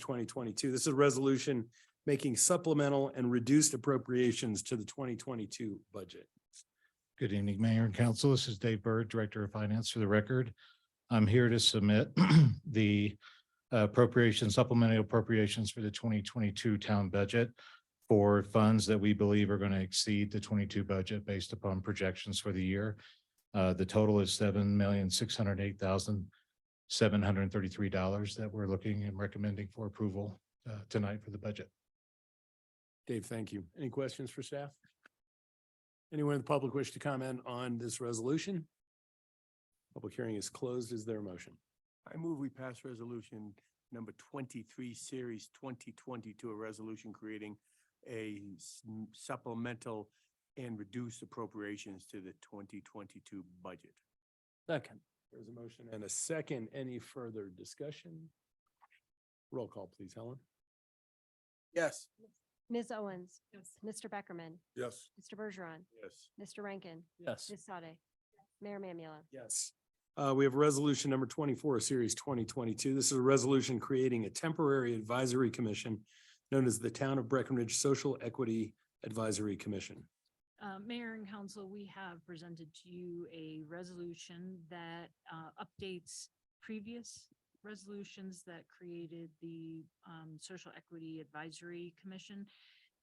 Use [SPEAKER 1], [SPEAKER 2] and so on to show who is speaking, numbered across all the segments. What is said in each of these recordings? [SPEAKER 1] twenty twenty-two. This is a resolution making supplemental and reduced appropriations to the twenty twenty-two budget.
[SPEAKER 2] Good evening, Mayor and Council. This is Dave Bird, Director of Finance for the record. I'm here to submit the uh, appropriations, supplemental appropriations for the twenty twenty-two town budget for funds that we believe are going to exceed the twenty-two budget based upon projections for the year. Uh, The total is seven million, six hundred eight thousand, seven hundred thirty-three dollars that we're looking and recommending for approval uh, tonight for the budget.
[SPEAKER 1] Dave, thank you. Any questions for staff? Anyone in the public wish to comment on this resolution? Public hearing is closed. Is there a motion?
[SPEAKER 3] I move we pass resolution number twenty-three, series twenty twenty-two, a resolution creating a s- m- supplemental and reduced appropriations to the twenty twenty-two budget.
[SPEAKER 1] Second. There's a motion and a second. Any further discussion? Roll call, please, Helen.
[SPEAKER 3] Yes.
[SPEAKER 4] Ms. Owens. Mr. Beckerman,
[SPEAKER 3] Yes.
[SPEAKER 4] Mr. Bergeron,
[SPEAKER 3] Yes.
[SPEAKER 4] Mr. Rankin,
[SPEAKER 1] Yes.
[SPEAKER 4] Ms. Sade, Mayor Mamula.
[SPEAKER 1] Yes. Uh, we have resolution number twenty-four, series twenty twenty-two. This is a resolution creating a temporary advisory commission known as the Town of Breckenridge Social Equity Advisory Commission.
[SPEAKER 5] Uh, Mayor and Council, we have presented to you a resolution that, uh, updates previous resolutions that created the, um, Social Equity Advisory Commission.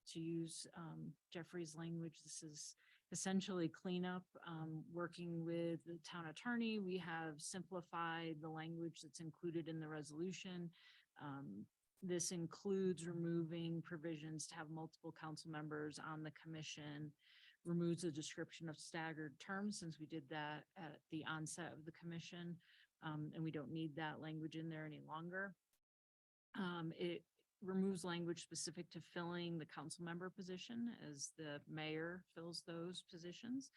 [SPEAKER 5] To use, um, Jeffrey's language, this is essentially cleanup, um, working with the town attorney. We have simplified the language that's included in the resolution. Um, this includes removing provisions to have multiple council members on the commission removes the description of staggered terms, since we did that at the onset of the commission. um, and we don't need that language in there any longer. Um, it removes language specific to filling the council member position as the mayor fills those positions.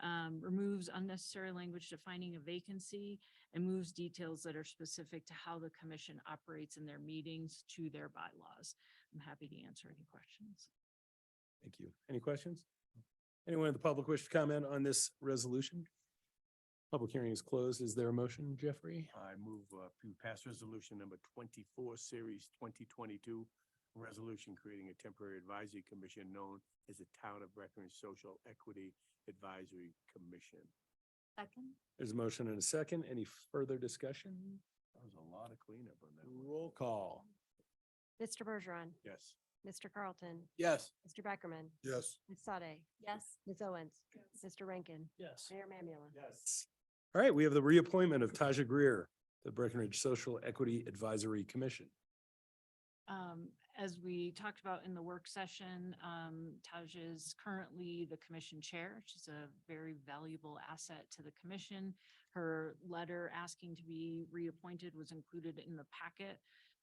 [SPEAKER 5] Um, removes unnecessary language defining a vacancy and moves details that are specific to how the commission operates in their meetings to their bylaws. I'm happy to answer any questions.
[SPEAKER 1] Thank you. Any questions? Anyone in the public wish to comment on this resolution? Public hearing is closed. Is there a motion, Jeffrey?
[SPEAKER 3] I move uh, we pass resolution number twenty-four, series twenty twenty-two, resolution creating a temporary advisory commission known as the Town of Breckenridge Social Equity Advisory Commission.
[SPEAKER 5] Second.
[SPEAKER 1] There's a motion and a second. Any further discussion?
[SPEAKER 3] That was a lot of cleanup on that. one.
[SPEAKER 1] Roll call.
[SPEAKER 4] Mr. Bergeron,
[SPEAKER 3] Yes.
[SPEAKER 4] Mr. Carlton,
[SPEAKER 3] Yes.
[SPEAKER 4] Mr. Beckerman,
[SPEAKER 3] Yes.
[SPEAKER 4] Ms. Sade. Yes. Ms. Owens, Mr. Rankin,
[SPEAKER 1] Yes.
[SPEAKER 4] Mayor Mamula.
[SPEAKER 1] Yes. All right, we have the reappointment of Taja Greer, the Breckenridge Social Equity Advisory Commission.
[SPEAKER 5] Um, as we talked about in the work session, um, Taj is currently the commission chair. She's a very valuable asset to the commission. Her letter asking to be reappointed was included in the packet.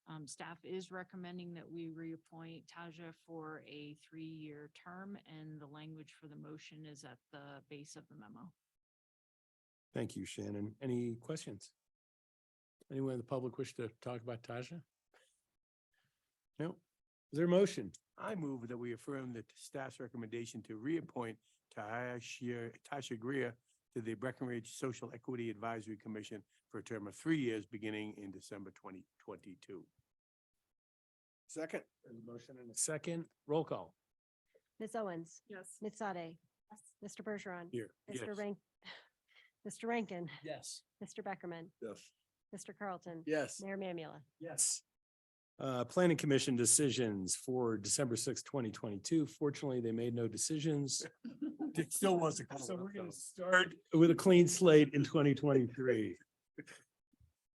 [SPEAKER 5] Um, staff is recommending that we reappoint Taja for a three-year term and the language for the motion is at the base of the memo.
[SPEAKER 1] Thank you, Shannon. Any questions? Anyone in the public wish to talk about Taja? No? Is there a motion?
[SPEAKER 3] I move that we affirm that staff's recommendation to reappoint Tasha, Tasha Greer to the Breckenridge Social Equity Advisory Commission for a term of three years beginning in December twenty twenty-two. Second.
[SPEAKER 1] There's a motion and a second. Roll call.
[SPEAKER 4] Ms. Owens,
[SPEAKER 5] Yes.
[SPEAKER 4] Ms. Sade, Mr. Bergeron,
[SPEAKER 3] Here.
[SPEAKER 4] Mr. Rank, Mr. Rankin,
[SPEAKER 1] Yes.
[SPEAKER 4] Mr. Beckerman,
[SPEAKER 3] Yes.
[SPEAKER 4] Mr. Carlton,
[SPEAKER 3] Yes.
[SPEAKER 4] Mayor Mamula.
[SPEAKER 1] Yes. Uh, Planning Commission decisions for December sixth, twenty twenty-two. Fortunately, they made no decisions.
[SPEAKER 3] It still wasn't.
[SPEAKER 1] So we're gonna start with a clean slate in twenty twenty-three.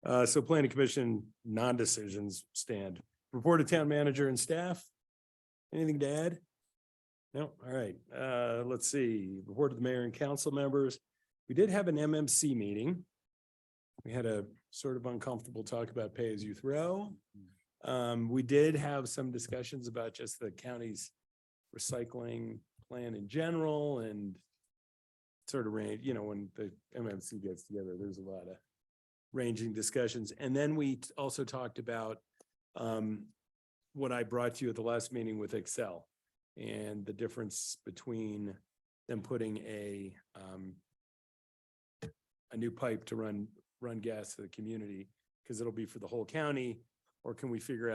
[SPEAKER 1] Uh, so planning commission non-decisions stand. Report of town manager and staff. Anything to add? No, all right, uh, let's see, report of the mayor and council members. We did have an MMC meeting. We had a sort of uncomfortable talk about pay as you throw. Um, we did have some discussions about just the county's recycling plan in general and sort of range, you know, when the MMC gets together, there's a lot of ranging discussions. And then we t- also talked about um, what I brought to you at the last meeting with Excel and the difference between them putting a um, a new pipe to run, run gas to the community, because it'll be for the whole county, or can we figure out